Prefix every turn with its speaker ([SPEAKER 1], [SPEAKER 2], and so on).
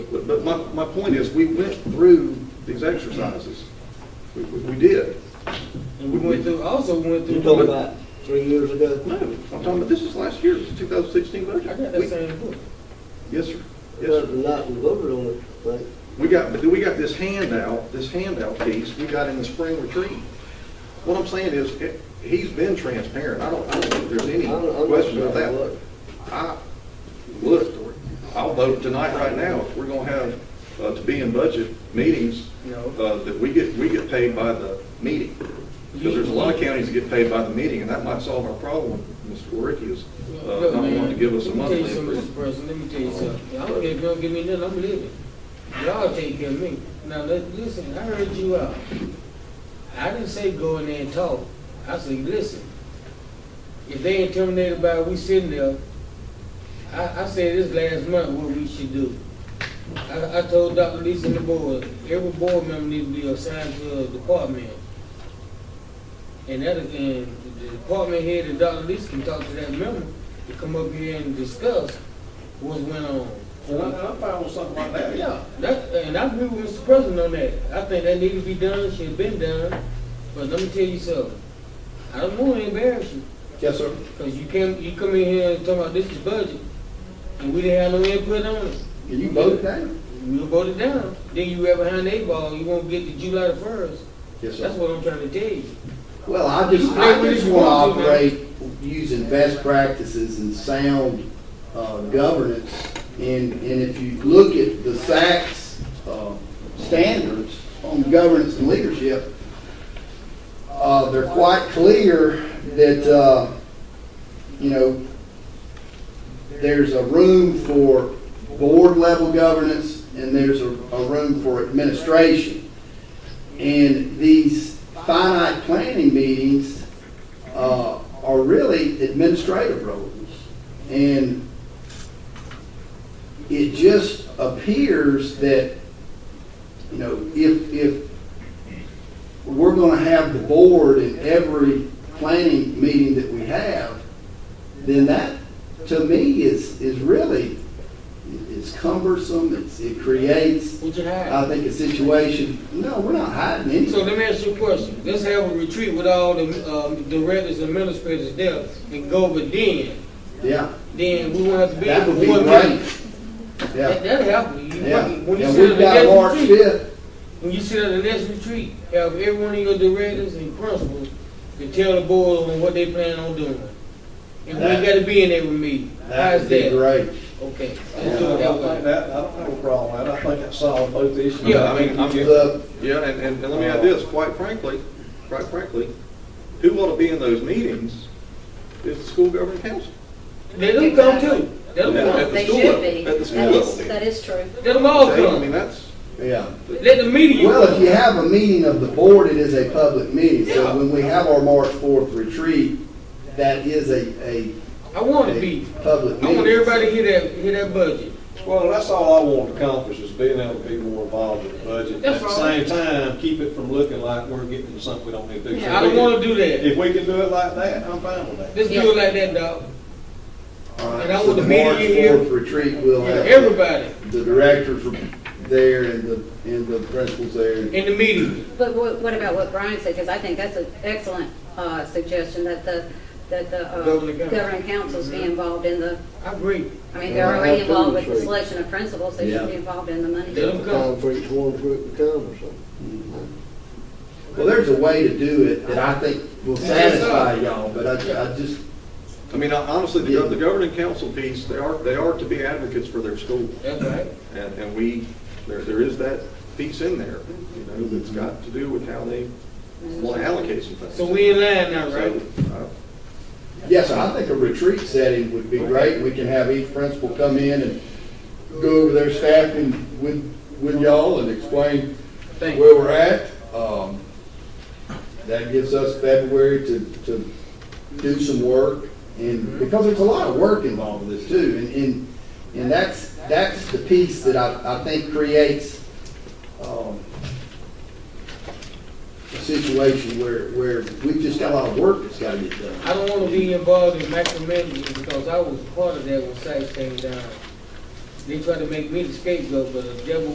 [SPEAKER 1] But but my, my point is, we went through these exercises. We, we we did.
[SPEAKER 2] And we went through, also went through.
[SPEAKER 3] You told me that three years
[SPEAKER 1] No,
[SPEAKER 3] ago.
[SPEAKER 1] I'm talking about, this is last year, this is 2016
[SPEAKER 2] I
[SPEAKER 1] budget.
[SPEAKER 2] got
[SPEAKER 1] We-
[SPEAKER 2] that same book.
[SPEAKER 1] Yes, sir. Yes, sir.
[SPEAKER 3] Because the night we voted on it, like,
[SPEAKER 1] We got, but then we got this handout, this handout piece we got in the spring retreat. What I'm saying is, eh, he's been transparent. I don't, I don't think there's
[SPEAKER 3] I
[SPEAKER 1] any
[SPEAKER 3] don't, I'm not
[SPEAKER 1] question
[SPEAKER 3] sure
[SPEAKER 1] about that.
[SPEAKER 3] what.
[SPEAKER 1] I, look, I'll vote tonight right now, if we're gonna have, uh, to be in budget meetings,
[SPEAKER 2] No.
[SPEAKER 1] uh, that we get, we get paid by the meeting. Because there's a lot of counties that get paid by the meeting, and that might solve our problem, Mr. Waricki is, uh,
[SPEAKER 2] Look,
[SPEAKER 1] not wanting to
[SPEAKER 2] man,
[SPEAKER 1] give us a
[SPEAKER 2] let me tell you
[SPEAKER 1] monthly
[SPEAKER 2] something,
[SPEAKER 1] increase.
[SPEAKER 2] Mr. President, let me tell you something. I don't, if you don't give me nothing, I'm leaving. Y'all take care of me. Now, let, listen, I heard you out. I didn't say go in there and talk. I said, listen, if they ain't terminated by, we sitting there, I, I said this last month what we should do. I, I told Dr. Lisa and the board, every board member needs to be assigned to a department. And that, and the department head and Dr. Lisa can talk to that member to come up here and discuss what went on.
[SPEAKER 1] I'm fine with something like
[SPEAKER 2] Yeah, that, and I agree with Mr. President on that. I think that need to be done, should have been done, but let me tell you something. I don't want to embarrass you,
[SPEAKER 1] Yes, sir.
[SPEAKER 2] because you came, you come in here and talk about this is budget, and we didn't have no input on it.
[SPEAKER 1] Can you vote now?
[SPEAKER 2] We vote it down, then you right behind eight ball, you won't get to July the first.
[SPEAKER 1] Yes,
[SPEAKER 2] That's what I'm trying to tell you.
[SPEAKER 4] Well, I just, I just want to operate using best practices and sound uh, governance. And, and if you look at the SACS uh, standards on governance and leadership, uh, they're quite clear that, uh, you know, there's a room for board level governance and there's a, a room for administration. And these finite planning meetings uh, are really administrative roles. And it just appears that, you know, if, if we're going to have the board in every planning meeting that we have, then that, to me, is, is really, it's cumbersome, it's, it creates
[SPEAKER 2] What you
[SPEAKER 4] I
[SPEAKER 2] have.
[SPEAKER 4] think a situation, no, we're not hiding anything.
[SPEAKER 2] So let me ask you a question. Let's have a retreat with all the, um, directors and administrators there and go over then.
[SPEAKER 4] Yeah,
[SPEAKER 2] Then we won't have to be.
[SPEAKER 4] that would
[SPEAKER 2] we
[SPEAKER 4] be
[SPEAKER 2] won't
[SPEAKER 4] great.
[SPEAKER 2] That,
[SPEAKER 4] Yeah,
[SPEAKER 2] that'll help you. You-
[SPEAKER 4] yeah.
[SPEAKER 2] When you
[SPEAKER 4] Yeah,
[SPEAKER 2] sit at
[SPEAKER 4] we've
[SPEAKER 2] the
[SPEAKER 4] got
[SPEAKER 2] next
[SPEAKER 4] March
[SPEAKER 2] retreat,
[SPEAKER 4] fifth,
[SPEAKER 2] when you sit at the next retreat, have every one of your directors and principals to tell the board on what they plan on doing. And we ain't
[SPEAKER 4] That-
[SPEAKER 2] gotta be in every meeting.
[SPEAKER 4] that
[SPEAKER 2] How's
[SPEAKER 4] would be
[SPEAKER 2] that?
[SPEAKER 4] great.
[SPEAKER 2] Okay,
[SPEAKER 3] Yeah,
[SPEAKER 2] let's
[SPEAKER 3] I
[SPEAKER 2] do it that
[SPEAKER 3] think
[SPEAKER 2] way.
[SPEAKER 3] that, I don't have a problem with that. I think that solved both issues.
[SPEAKER 2] Yeah,
[SPEAKER 1] I mean, I'm,
[SPEAKER 4] The,
[SPEAKER 1] yeah, and, and and let me add this, quite frankly, quite frankly, who ought to be in those meetings is the school governing council.
[SPEAKER 2] Let them come too. Let them
[SPEAKER 1] Yeah.
[SPEAKER 2] come.
[SPEAKER 5] They
[SPEAKER 1] school
[SPEAKER 5] should
[SPEAKER 1] level,
[SPEAKER 5] be.
[SPEAKER 1] at the school
[SPEAKER 5] That is-
[SPEAKER 1] level.
[SPEAKER 5] That is true.
[SPEAKER 2] Let them all
[SPEAKER 1] Okay, I mean,
[SPEAKER 2] come.
[SPEAKER 1] that's,
[SPEAKER 4] yeah.
[SPEAKER 2] Let the meeting.
[SPEAKER 4] Well, if you have a meeting of the board, it is a public meeting.
[SPEAKER 2] Yeah.
[SPEAKER 4] So when we have our March fourth retreat, that is a, a,
[SPEAKER 2] I want to
[SPEAKER 4] a
[SPEAKER 2] be.
[SPEAKER 4] public
[SPEAKER 2] I
[SPEAKER 4] meeting.
[SPEAKER 2] want everybody to hear that, hear that budget.
[SPEAKER 3] Well, that's all I want to accomplish, is being able to be more involved in the budget.
[SPEAKER 2] That's
[SPEAKER 3] At the
[SPEAKER 2] right.
[SPEAKER 3] same time, keep it from looking like we're getting into something we don't need to do. So
[SPEAKER 2] I don't
[SPEAKER 3] we can-
[SPEAKER 2] wanna do that.
[SPEAKER 3] If we can do it like that, I'm fine with that.
[SPEAKER 2] Let's do it like that, dog.
[SPEAKER 4] All right,
[SPEAKER 2] And I
[SPEAKER 4] so
[SPEAKER 2] want
[SPEAKER 4] the
[SPEAKER 2] the meeting
[SPEAKER 4] March
[SPEAKER 2] here.
[SPEAKER 4] fourth retreat will have. the-
[SPEAKER 2] Everybody
[SPEAKER 4] The directors are there and the, and the principals there.
[SPEAKER 2] in the meeting.
[SPEAKER 5] But what what about what Brian said, because I think that's an excellent uh, suggestion, that the, that the uh,
[SPEAKER 2] Governing council. Mm-hmm.
[SPEAKER 5] governing councils be involved in the,
[SPEAKER 2] I agree.
[SPEAKER 5] I mean, they're
[SPEAKER 3] Yeah,
[SPEAKER 5] already
[SPEAKER 3] that's
[SPEAKER 5] involved with the
[SPEAKER 3] true.
[SPEAKER 5] selection of principals, they
[SPEAKER 4] Yeah.
[SPEAKER 5] should be involved in the money.
[SPEAKER 2] Let them come.
[SPEAKER 3] Concrete one group to come or something.
[SPEAKER 4] Well, there's a way to do it that I think will satisfy y'all, but I, I just,
[SPEAKER 1] I mean, honestly, the gov- the governing council piece, they are, they are to be advocates for their school.
[SPEAKER 2] That's right.
[SPEAKER 1] And, and we, there, there is that piece in there, you know, that's got to do with how they want to allocate some things.
[SPEAKER 2] So we in line now,
[SPEAKER 1] So,
[SPEAKER 2] right?
[SPEAKER 1] uh,
[SPEAKER 4] yes, I think a retreat setting would be great. We can have each principal come in and go over their staff and with, with y'all and explain
[SPEAKER 2] Thank you.
[SPEAKER 4] where we're at. Um, That gives us February to, to do some work
[SPEAKER 2] Mm-hmm.
[SPEAKER 4] and, because there's a lot of work involved with this too. And, and, and that's, that's the piece that I, I think creates, um, a situation where, where we've just got a lot of work that's gotta get done.
[SPEAKER 2] I don't want to be involved in macromanaging because I was part of that when sites came down. They try to make me the scapegoat, but the devil